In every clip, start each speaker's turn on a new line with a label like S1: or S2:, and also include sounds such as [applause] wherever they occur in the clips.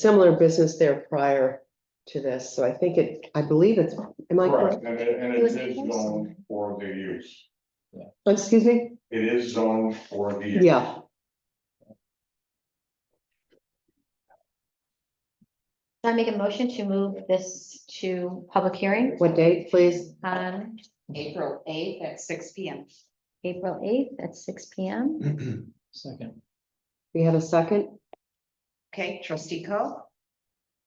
S1: similar business there prior to this, so I think it, I believe it's, am I
S2: Correct,
S1: correct?
S2: and it, and
S3: It
S2: it
S3: was
S2: is
S3: canceled.
S2: zoned for the use.
S1: Oh, Excuse me?
S2: It is zoned for the. use.
S1: Yeah,
S3: I make a motion to move this to public hearing
S1: what date, please?
S3: on
S4: April eighth at six P M.
S3: April eighth at six P M.
S5: Mm-hmm.
S6: Second,
S1: We have a second?
S4: Okay, trustee Co,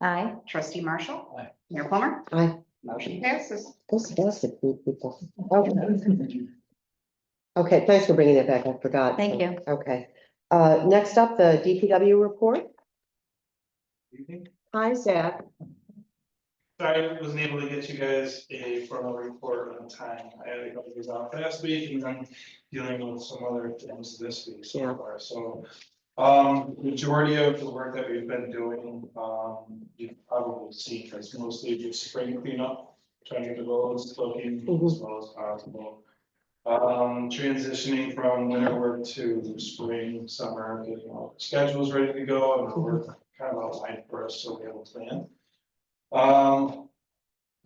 S3: Aye.
S4: trustee Marshall.
S6: Aye.
S4: Mayor Plummer.
S1: Aye.
S4: Motion passes.
S1: This does include people. Okay, thanks for bringing it back, I forgot.
S3: Thank you.
S1: Okay, uh, next up, the DPW report.
S5: evening.
S1: Hi, Zach.
S5: Sorry, I wasn't able to get you guys a formal report on time. I had a couple of days off last week and I'm dealing with some other things this week
S1: Yeah.
S5: so far, so. Um, majority of the work that we've been doing, um, you've probably seen, it's mostly just spring cleanup. Trying to get the roads looking as
S1: Mhm.
S5: well as possible. Um, transitioning from winter work to spring, summer, getting all the schedules ready to go and we're kind of outlined for us, so we have a plan. Um,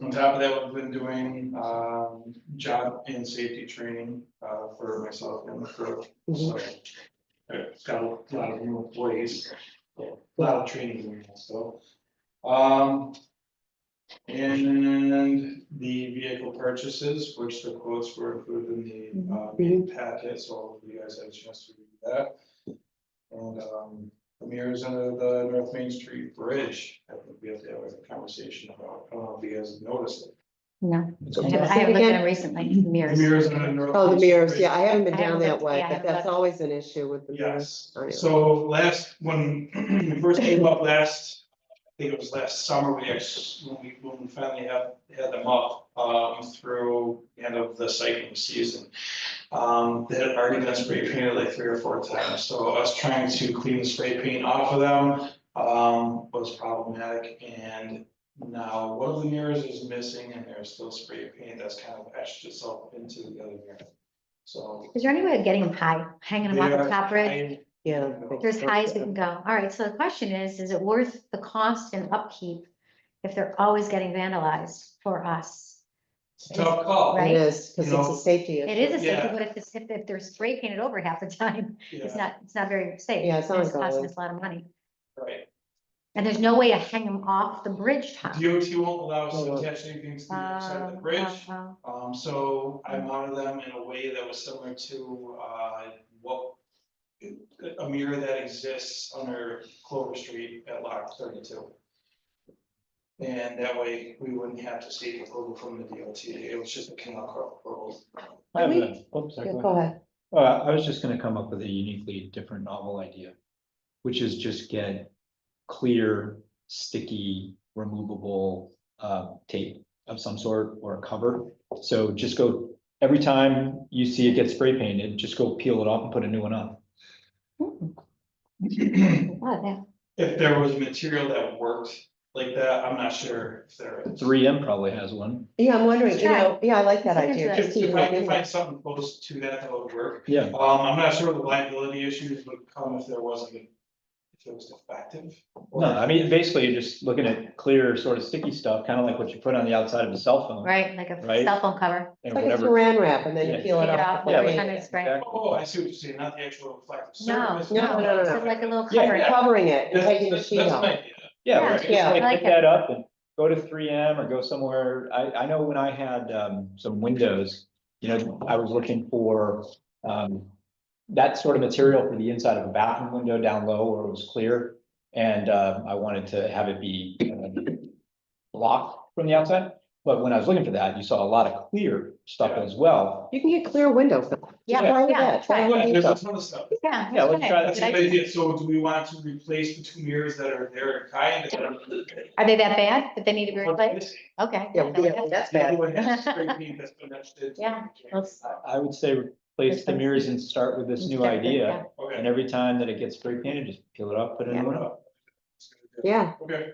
S5: on top of that, we've been doing, um, job and safety training, uh, for myself and the crew, so.
S1: Mhm.
S5: I've got a lot of new employees, a lot of training, going on, so. Um. And the vehicle purchases, which the quotes were included in
S1: Mhm.
S5: the, uh, meeting packet, so if you guys had a chance to read that. And, um, the mirrors under the North Main Street Bridge, I think we have to have a conversation about, I don't know if you guys have noticed it.
S3: No, I
S1: Okay.
S3: haven't, I
S1: Say it
S3: haven't looked at
S1: again.
S3: them recently.
S5: Mm-hmm. The
S3: Mirrors.
S5: mirrors under the North.
S1: Oh,
S5: Main
S1: the
S5: Street
S1: mirrors,
S5: Bridge.
S1: yeah, I haven't been
S3: I haven't
S1: down that
S3: looked-
S1: way,
S3: yeah, I
S1: but
S3: haven't
S1: that's
S3: looked.
S1: always an issue with the mirrors.
S5: Yes,
S1: Oh, yeah.
S5: so last, when we first came up last, I think it was last summer, we actually, when we, when we finally had, had them up, um, through the end of the cycling season. Um, they had already been spray painted like three or four times, so us trying to clean the spray paint off of them, um, was problematic and now one of the mirrors is missing and there's still spray paint that's kind of etched itself into the other mirror. So.
S3: Is there any way of getting them high, hanging them off the
S5: they are
S3: top ridge?
S5: kind-
S1: Yeah.
S3: They're as high as we can go. All right, so the question is, is it worth the cost and upkeep if they're always getting vandalized for us?
S5: It's a Tough call.
S3: Right?
S1: It is, because
S5: You
S1: it's
S5: know,
S1: a safety
S3: It
S1: issue.
S3: is a safety,
S5: Yeah.
S3: but if it's, if if they're spray painted over half the time, it's
S5: Yeah,
S3: not, it's not very safe.
S1: Yeah, it's not
S3: and costing
S1: going.
S3: us a lot of money.
S5: Right,
S3: And there's no way to hang them off the bridge top.
S5: DOT won't allow us
S1: Oh,
S5: to
S1: wow.
S5: attach anything to the outside of
S3: Um,
S5: the
S3: uh,
S5: bridge,
S3: uh,
S5: um, so I mounted them in a way that was similar to, uh, what. A mirror that exists under Clover Street at lot thirty-two. And that way, we wouldn't have to seek approval from the DOT, it was just a canal road.
S6: I have
S1: We-
S6: a, oops, sorry,
S1: Yeah,
S6: go
S1: Go
S6: ahead.
S1: ahead.
S6: Uh, I was just gonna come up with a uniquely different novel idea, which is just get clear, sticky, removable, uh, tape of some sort or a cover. So just go, every time you see it get spray painted, just go peel it off and put a new one on.
S3: wow, that-
S5: [clears throat] If there was material that worked like that, I'm not sure if there is.
S6: Three M probably has one.
S1: Yeah, I'm wondering,
S3: Let's
S1: you know, yeah, I like that
S3: Let's look
S1: idea.
S3: into
S1: Just
S5: If
S1: keep
S5: if I can
S1: looking.
S5: find something close to that, that would work.
S6: Yeah,
S5: Um, I'm not sure the liability issues would come if there wasn't, a- if it was defective. or-
S6: no, I mean, basically you're just looking at clear sort of sticky stuff, kind of like what you put on the outside of a cell phone
S3: Right, like a
S6: Right?
S3: cell phone cover.
S6: and
S1: Like a
S6: whatever.
S1: saran wrap and then you
S6: Yeah.
S1: peel it
S3: Take it
S1: off.
S3: off,
S1: before
S6: Yeah,
S3: like
S1: you-
S3: kind of spray.
S6: Exactly.
S5: Oh, I see what you're saying, not the actual reflective
S3: No,
S5: surface.
S1: No,
S3: no,
S1: no, no,
S3: this
S1: no.
S3: is like a little
S6: Yeah,
S3: cover.
S5: yeah.
S1: Covering it and
S5: That's-
S1: taking the
S5: that's-
S1: sheet
S5: that's
S1: off.
S5: my idea.
S6: Yeah,
S3: Yeah,
S6: or just
S3: yeah, I
S6: like
S3: like
S6: pick
S3: it.
S6: that up and go to three M or go somewhere. I, I know when I had, um, some windows, you know, I was looking for, um, that sort of material for the inside of a bathroom window down low where it was clear. And, um I wanted to have it be um, blocked from the outside. But when I was looking for that, you saw a lot of clear stuff as well.
S1: You can get clear windows.
S3: Yeah,
S1: Try
S3: yeah,
S1: that. Try
S3: try it.
S1: one of
S5: Yeah,
S1: these
S5: There's a
S1: up.
S5: ton of stuff.
S3: Yeah.
S6: Yeah, let's
S3: okay.
S6: try that.
S5: That's a
S3: Did I-
S5: good idea, so do we want to replace the two mirrors that are there in kind?
S3: Are they that bad that they need to be replaced? Okay.
S1: Yeah, yeah, that's bad.
S5: Everyone has
S3: [laughs]
S5: spray paint that's been etched into it.
S3: Yeah, let's-
S6: I, I would say replace the mirrors and start with this new idea. And
S5: Okay.
S6: every time that it gets spray painted, just peel it up, put a
S3: Yeah.
S6: new one up.
S1: Yeah,
S5: Okay,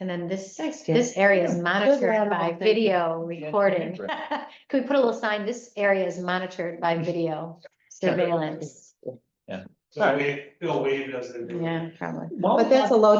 S3: And then this,
S1: Thanks, Jen.
S3: this area is
S1: Yeah. Good
S3: monitored
S1: round of
S3: by
S1: applause.
S3: video
S6: Yeah,
S3: recording.
S6: right.
S3: [laughs] Could we put a little sign, this area is monitored by
S6: [laughs]
S3: video surveillance?
S5: so wave, they'll wave as they.
S3: Yeah, probably.
S1: but that's a low